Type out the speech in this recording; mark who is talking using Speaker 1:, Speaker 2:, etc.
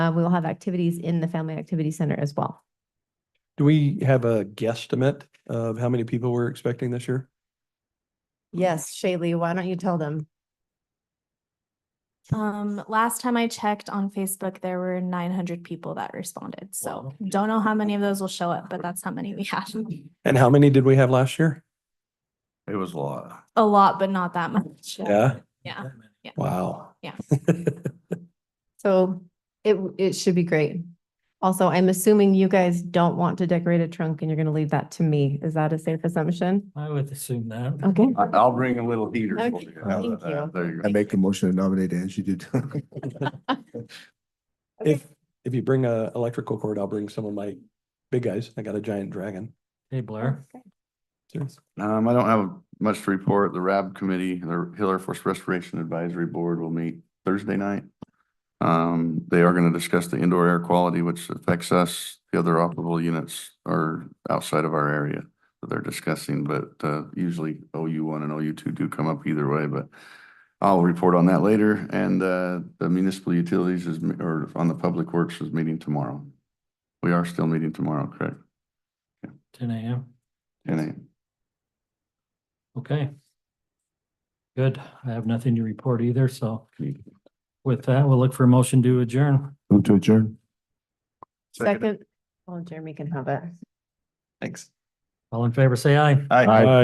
Speaker 1: Uh, we will have activities in the Family Activity Center as well.
Speaker 2: Do we have a guesstimate of how many people we're expecting this year?
Speaker 1: Yes, Shaylee, why don't you tell them?
Speaker 3: Um, last time I checked on Facebook, there were nine hundred people that responded, so don't know how many of those will show up, but that's how many we had.
Speaker 2: And how many did we have last year?
Speaker 4: It was a lot.
Speaker 3: A lot, but not that much.
Speaker 2: Yeah,
Speaker 3: Yeah,
Speaker 2: wow.
Speaker 3: Yeah.
Speaker 1: So it, it should be great. Also, I'm assuming you guys don't want to decorate a trunk and you're gonna leave that to me. Is that a safe assumption?
Speaker 5: I would assume that.
Speaker 1: Okay.
Speaker 4: I- I'll bring a little heater.
Speaker 1: Okay,
Speaker 4: for you. How's
Speaker 1: thank
Speaker 4: that?
Speaker 1: you.
Speaker 4: There you
Speaker 6: I
Speaker 4: go.
Speaker 6: make the motion to nominate Angie to.
Speaker 2: If, if you bring a electrical cord, I'll bring some of my big guys. I got a giant dragon.
Speaker 5: Hey Blair,
Speaker 2: Serious.
Speaker 4: Um, I don't have much to report. The RAB committee, the Hill Air Force Restoration Advisory Board will meet Thursday night. Um, they are going to discuss the indoor air quality, which affects us. The other operable units are outside of our area that they're discussing, but, uh, usually OU one and OU two do come up either way, but I'll report on that later. And, uh, the municipal utilities is, or on the public works is meeting tomorrow. We are still meeting tomorrow, correct?
Speaker 5: ten AM.
Speaker 4: Ten AM.
Speaker 5: Okay. Good. I have nothing to report either, so with that, we'll look for a motion to adjourn.
Speaker 6: Move to adjourn.
Speaker 1: Second, well, Oh, Jeremy can have it.
Speaker 4: Thanks.
Speaker 5: All in favor, say aye.
Speaker 4: Aye.
Speaker 6: Aye.